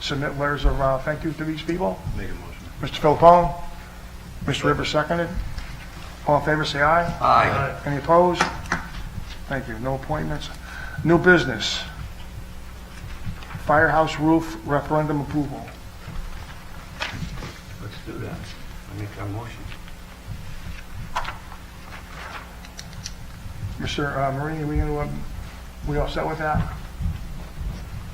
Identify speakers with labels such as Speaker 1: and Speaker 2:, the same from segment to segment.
Speaker 1: submit letters of uh, thank you to these people.
Speaker 2: Make a motion.
Speaker 1: Mr. Philippone, Mr. Rivers seconded. All in favor, say aye.
Speaker 2: Aye.
Speaker 1: Any opposed? Thank you. No appointments. New business. Firehouse roof referendum approval.
Speaker 2: Let's do that. I make a motion.
Speaker 1: Mr. uh, Marini, we, uh, we all set with that?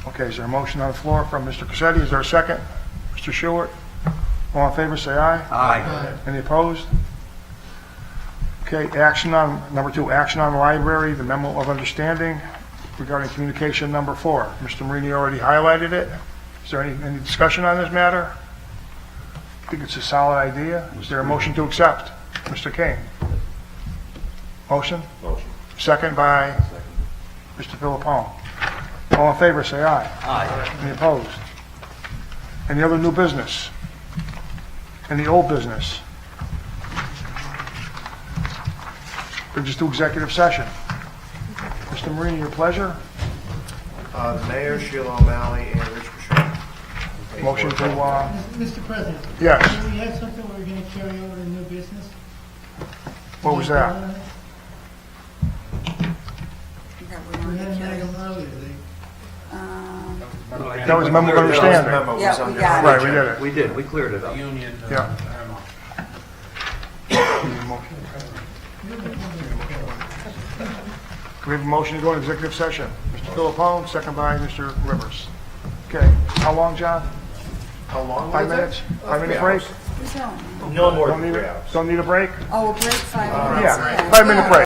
Speaker 1: Okay, is there a motion on the floor from Mr. Cassetti? Is there a second? Mr. Stewart? All in favor, say aye.
Speaker 2: Aye.
Speaker 1: Any opposed? Okay, action on, number two, action on library, the memo of understanding regarding communication number four. Mr. Marini already highlighted it. Is there any, any discussion on this matter? I think it's a solid idea. Is there a motion to accept? Mr. Kane? Motion?
Speaker 2: Motion.
Speaker 1: Second by
Speaker 2: Second.
Speaker 1: Mr. Philippone. All in favor, say aye.
Speaker 2: Aye.
Speaker 1: Any opposed? Any other new business? Any old business? Or just do executive session? Mr. Marini, your pleasure.
Speaker 3: Uh, the Mayor, Sheila O'Malley, and Rich Bischoff.
Speaker 1: Motion to, uh,
Speaker 4: Mr. President,
Speaker 1: yes,
Speaker 4: do we have something we're going to carry over to new business?
Speaker 1: what was that?
Speaker 4: We had an item earlier, they
Speaker 1: That was memo of understanding.
Speaker 3: Memo was
Speaker 5: Yeah, we
Speaker 3: under-
Speaker 5: got it.
Speaker 1: Right, we did it,
Speaker 2: We did, we cleared it up. Union.
Speaker 1: yeah. Can we have a motion to go into executive session? Mr. Philippone, second by Mr. Rivers. Okay, how long, John?
Speaker 3: How long was
Speaker 1: Five
Speaker 3: it?
Speaker 1: minutes?
Speaker 3: Uh,
Speaker 1: Five minute
Speaker 3: three
Speaker 1: break?
Speaker 3: hours.
Speaker 5: Who's on?
Speaker 3: No more
Speaker 1: Don't
Speaker 3: than
Speaker 1: need
Speaker 3: three
Speaker 1: a,
Speaker 3: hours.
Speaker 1: don't need a break?
Speaker 5: Oh, break five minutes.
Speaker 1: Yeah, five minute break.